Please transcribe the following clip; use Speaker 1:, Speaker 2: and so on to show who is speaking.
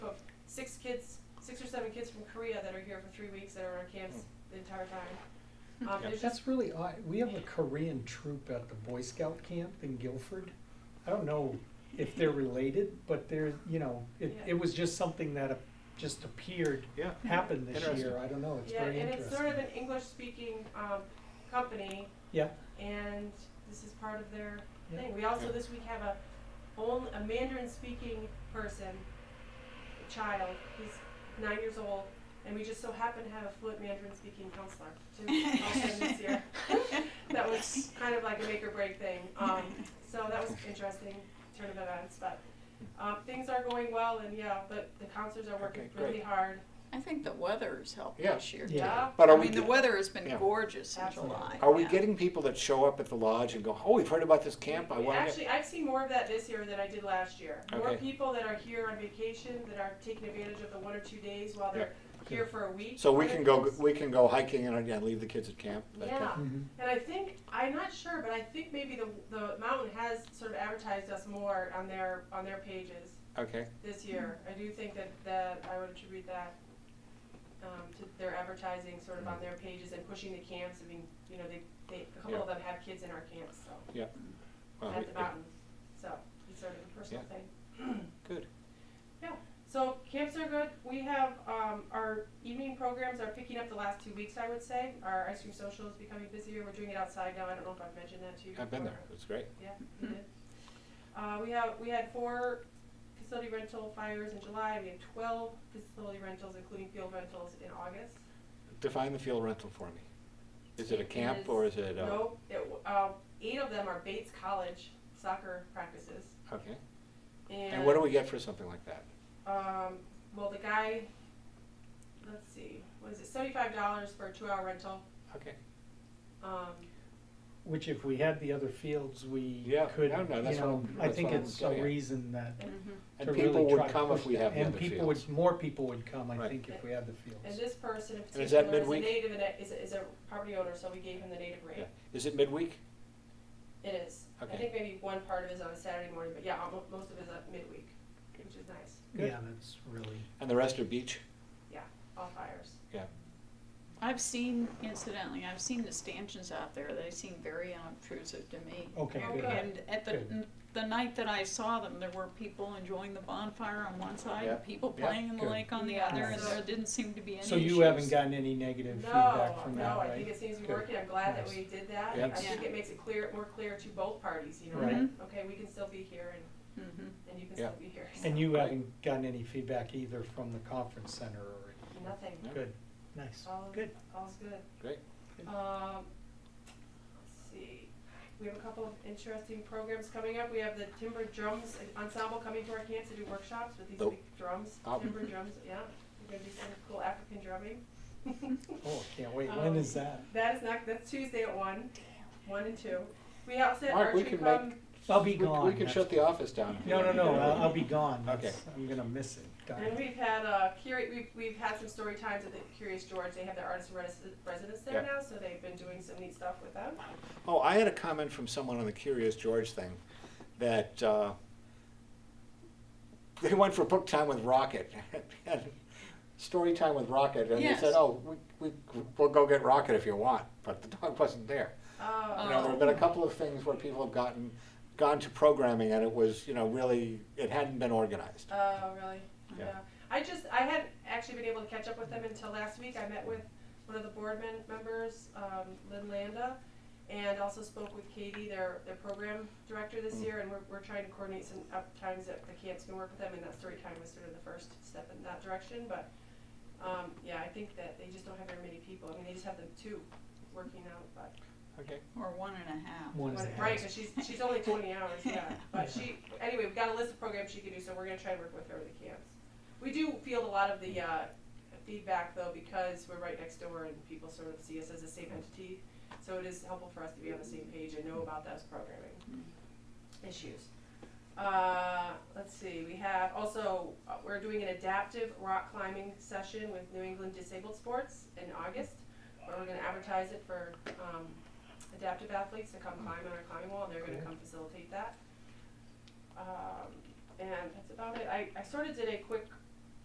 Speaker 1: six kids, six or seven kids from Korea that are here for three weeks that are on camps the entire time. Um,
Speaker 2: Yeah.
Speaker 1: there's just,
Speaker 3: That's really odd. We have a Korean troop at the Boy Scout camp in Guilford. I don't know if they're related, but they're, you know, it,
Speaker 1: Yeah.
Speaker 3: it was just something that uh, just appeared,
Speaker 2: Yeah.
Speaker 3: happened this
Speaker 2: Interesting.
Speaker 3: year. I don't know. It's
Speaker 1: yeah,
Speaker 3: very
Speaker 1: and it's sort of
Speaker 3: interesting.
Speaker 1: an English-speaking, um, company,
Speaker 3: Yeah,
Speaker 1: and this is part of their
Speaker 3: Yeah.
Speaker 1: thing. We also
Speaker 2: Yeah.
Speaker 1: this week have a only a Mandarin speaking person, a child. He's nine years old, and we just so happen to have a fluent Mandarin speaking counselor to help him this year. that was kind of like a make or break thing. Um, so that was interesting turn of events, but. Um, things are going well, and yeah, but the counselors are working
Speaker 2: Okay,
Speaker 1: really
Speaker 2: great.
Speaker 1: hard.
Speaker 4: I think the weather's helped
Speaker 2: Yeah.
Speaker 4: this year.
Speaker 3: Yeah.
Speaker 2: But are
Speaker 4: I
Speaker 2: we,
Speaker 4: mean, the
Speaker 2: ge-
Speaker 4: weather has been
Speaker 2: Yeah.
Speaker 4: gorgeous in
Speaker 1: Absolutely.
Speaker 4: July.
Speaker 2: are we
Speaker 4: yeah.
Speaker 2: getting people that show up at the lodge and go, oh, we've heard about this camp, I
Speaker 1: We-
Speaker 2: wanna get,
Speaker 1: Actually, I've seen more of that this year than I did last year. More
Speaker 2: Okay.
Speaker 1: people that are here on vacation that are taking advantage of the one or two days while they're here for a week.
Speaker 2: so we
Speaker 1: Other
Speaker 2: can go,
Speaker 1: things-
Speaker 2: we can go hiking and, and leave the kids at camp? that kind
Speaker 1: Yeah,
Speaker 2: of-
Speaker 3: Mhm.
Speaker 1: and I think, I'm not sure, but I think maybe the, the mountain has sort of advertised us more on their, on their pages
Speaker 2: Okay,
Speaker 1: this year. I do think that, that I would attribute that, um, to their advertising sort of on their pages and pushing the camps. I mean, you know, they, they, a couple of them have kids in our camps, so,
Speaker 2: yeah. Well,
Speaker 1: at the
Speaker 2: yeah,
Speaker 1: mountain, so it's sort of a personal
Speaker 2: Yeah.
Speaker 1: thing.
Speaker 2: Good,
Speaker 1: Yeah, so camps are good. We have, um, our evening programs are picking up the last two weeks, I would say. Our ice cream social is becoming busier. We're doing it outside now. I don't know if I've mentioned that to you.
Speaker 2: I've been there,
Speaker 1: before.
Speaker 2: it's great.
Speaker 1: Yeah, you did. Uh, we have, we had four facility rental fires in July. We had twelve facility rentals, including field rentals in August.
Speaker 2: Define the field rental for me. Is it a
Speaker 1: It
Speaker 2: camp
Speaker 1: is-
Speaker 2: or is it uh, a?
Speaker 1: Nope, it, w- uh, eight of them are Bates College soccer practices.
Speaker 2: Okay,
Speaker 1: And.
Speaker 2: and what do we get for something like that?
Speaker 1: Um, well, the guy, let's see, was it seventy-five dollars for a two-hour rental?
Speaker 2: Okay,
Speaker 1: Um,
Speaker 3: Which if we had the other fields, we
Speaker 2: Yeah,
Speaker 3: could,
Speaker 2: no, no,
Speaker 3: you
Speaker 2: that's what
Speaker 3: know,
Speaker 2: I'm-
Speaker 3: I
Speaker 2: that's
Speaker 3: think
Speaker 2: what I'm
Speaker 3: it's
Speaker 2: getting
Speaker 3: a
Speaker 2: at.
Speaker 3: reason that, to
Speaker 4: Mm-hmm.
Speaker 2: and
Speaker 3: really
Speaker 2: people
Speaker 3: try
Speaker 2: would
Speaker 3: to
Speaker 2: come if
Speaker 3: push
Speaker 2: we
Speaker 3: that.
Speaker 2: have the
Speaker 3: And
Speaker 2: other
Speaker 3: people
Speaker 2: fields.
Speaker 3: would, more people would come, I
Speaker 2: Right.
Speaker 3: think, if we had the fields.
Speaker 1: and this person in
Speaker 2: And is that
Speaker 1: particular is a
Speaker 2: midweek?
Speaker 1: native, and a- is a, is a property owner, so we gave him the native
Speaker 2: Yeah.
Speaker 1: rate.
Speaker 2: Is it midweek?
Speaker 1: It is. I
Speaker 2: Okay.
Speaker 1: think maybe one part of it is on a Saturday morning, but yeah, almo- most of it is at midweek, which is nice.
Speaker 2: Good.
Speaker 3: Yeah, that's really,
Speaker 2: And the rest are beach?
Speaker 1: Yeah, all fires.
Speaker 2: Yeah,
Speaker 4: I've seen, incidentally, I've seen the stanchions out there. They seem very unobtrusive to me.
Speaker 3: okay,
Speaker 1: Oh,
Speaker 3: good.
Speaker 1: good.
Speaker 4: And at the,
Speaker 3: Good.
Speaker 4: the night that I saw them, there were people enjoying the bonfire on one side,
Speaker 2: Yeah.
Speaker 4: and people
Speaker 2: Yeah.
Speaker 4: playing in the
Speaker 3: Good.
Speaker 4: lake on the
Speaker 1: Yeah.
Speaker 4: other, and
Speaker 1: Nice.
Speaker 4: there didn't seem to be any
Speaker 3: So you haven't
Speaker 4: issues.
Speaker 3: gotten any negative
Speaker 1: No,
Speaker 3: feedback from that,
Speaker 1: no,
Speaker 3: right?
Speaker 1: I think it seems to be
Speaker 3: Good.
Speaker 1: working. I'm glad that
Speaker 3: Nice.
Speaker 1: we did that. I
Speaker 2: Yep.
Speaker 1: think
Speaker 4: Yeah.
Speaker 1: it makes it clear, more clear to both parties, you know,
Speaker 3: Right.
Speaker 1: that, okay, we can still be here and,
Speaker 4: Mhm.
Speaker 1: and you can
Speaker 2: Yeah.
Speaker 1: still be here.
Speaker 3: And
Speaker 1: so.
Speaker 3: you
Speaker 2: Right.
Speaker 3: haven't gotten any feedback either from the conference center or,
Speaker 1: Nothing.
Speaker 2: No.
Speaker 3: good, nice,
Speaker 1: All
Speaker 3: good.
Speaker 1: All's good.
Speaker 2: great.
Speaker 1: Um, let's see, we have a couple of interesting programs coming up. We have the Timber Drums Ensemble coming to our camp to do workshops with these
Speaker 2: Nope.
Speaker 1: big drums,
Speaker 2: Oh.
Speaker 1: timber drums, yeah. We're gonna do some cool African drumming.
Speaker 3: Oh, I can't wait, when is
Speaker 1: Um,
Speaker 3: that?
Speaker 1: That is not, that's Tuesday at one, one and two. We also have
Speaker 2: Mark, we
Speaker 1: archery
Speaker 2: can make-
Speaker 1: club,
Speaker 3: I'll be
Speaker 2: We-
Speaker 3: gone.
Speaker 2: We can
Speaker 3: that's-
Speaker 2: shut the office down.
Speaker 3: No, no, no, I'll, I'll be gone,
Speaker 2: Okay.
Speaker 3: that's, I'm gonna miss it, darn
Speaker 1: and
Speaker 3: it.
Speaker 1: we've had, uh, Curi, we've, we've had some story times at the Curious George. They have their artist resi- residence there
Speaker 2: Yeah.
Speaker 1: now, so they've been doing some neat stuff with them.
Speaker 2: Oh, I had a comment from someone on the Curious George thing that uh, they went for book time with Rocket and story time with Rocket, and they
Speaker 4: Yes.
Speaker 2: said, "Oh, we, we we'll go get Rocket if you want," but the dog wasn't there. You
Speaker 1: Um,
Speaker 2: know, there have been a couple of things where people have gotten gone to programming, and it was you know really it hadn't been organized.
Speaker 1: Oh, really?
Speaker 2: Yeah.
Speaker 1: I just, I hadn't actually been able to catch up with them until last week. I met with one of the board men- members, um, Lynn Landa, and also spoke with Katie, their, their program director this
Speaker 2: Mm.
Speaker 1: year, and we're, we're trying to coordinate some up times that the camps can work with them, and that story time was sort of the first step in that direction, but, um, yeah, I think that they just don't have very many people. I mean, they just have the two working out, but,
Speaker 2: Okay.
Speaker 4: Or one and a half.
Speaker 3: One is
Speaker 1: but-
Speaker 3: the
Speaker 1: right,
Speaker 3: house.
Speaker 1: cause she's, she's only twenty hours, yeah. But
Speaker 3: Yeah.
Speaker 1: she, anyway, we've got a list of programs she can do, so we're gonna try and work with her with the camps. We do field a lot of the, uh, feedback though, because we're right next door and people sort of see us as the same entity. So it is helpful for us to be on the same page and know about those programming issues. Uh, let's see, we have also, uh, we're doing an adaptive rock climbing session with New England Disabled Sports in August. Where we're gonna advertise it for, um, adaptive athletes to come climb on our climbing wall and they're gonna
Speaker 3: Cool.
Speaker 1: come facilitate that. Um, and that's about it. I, I sort of did a quick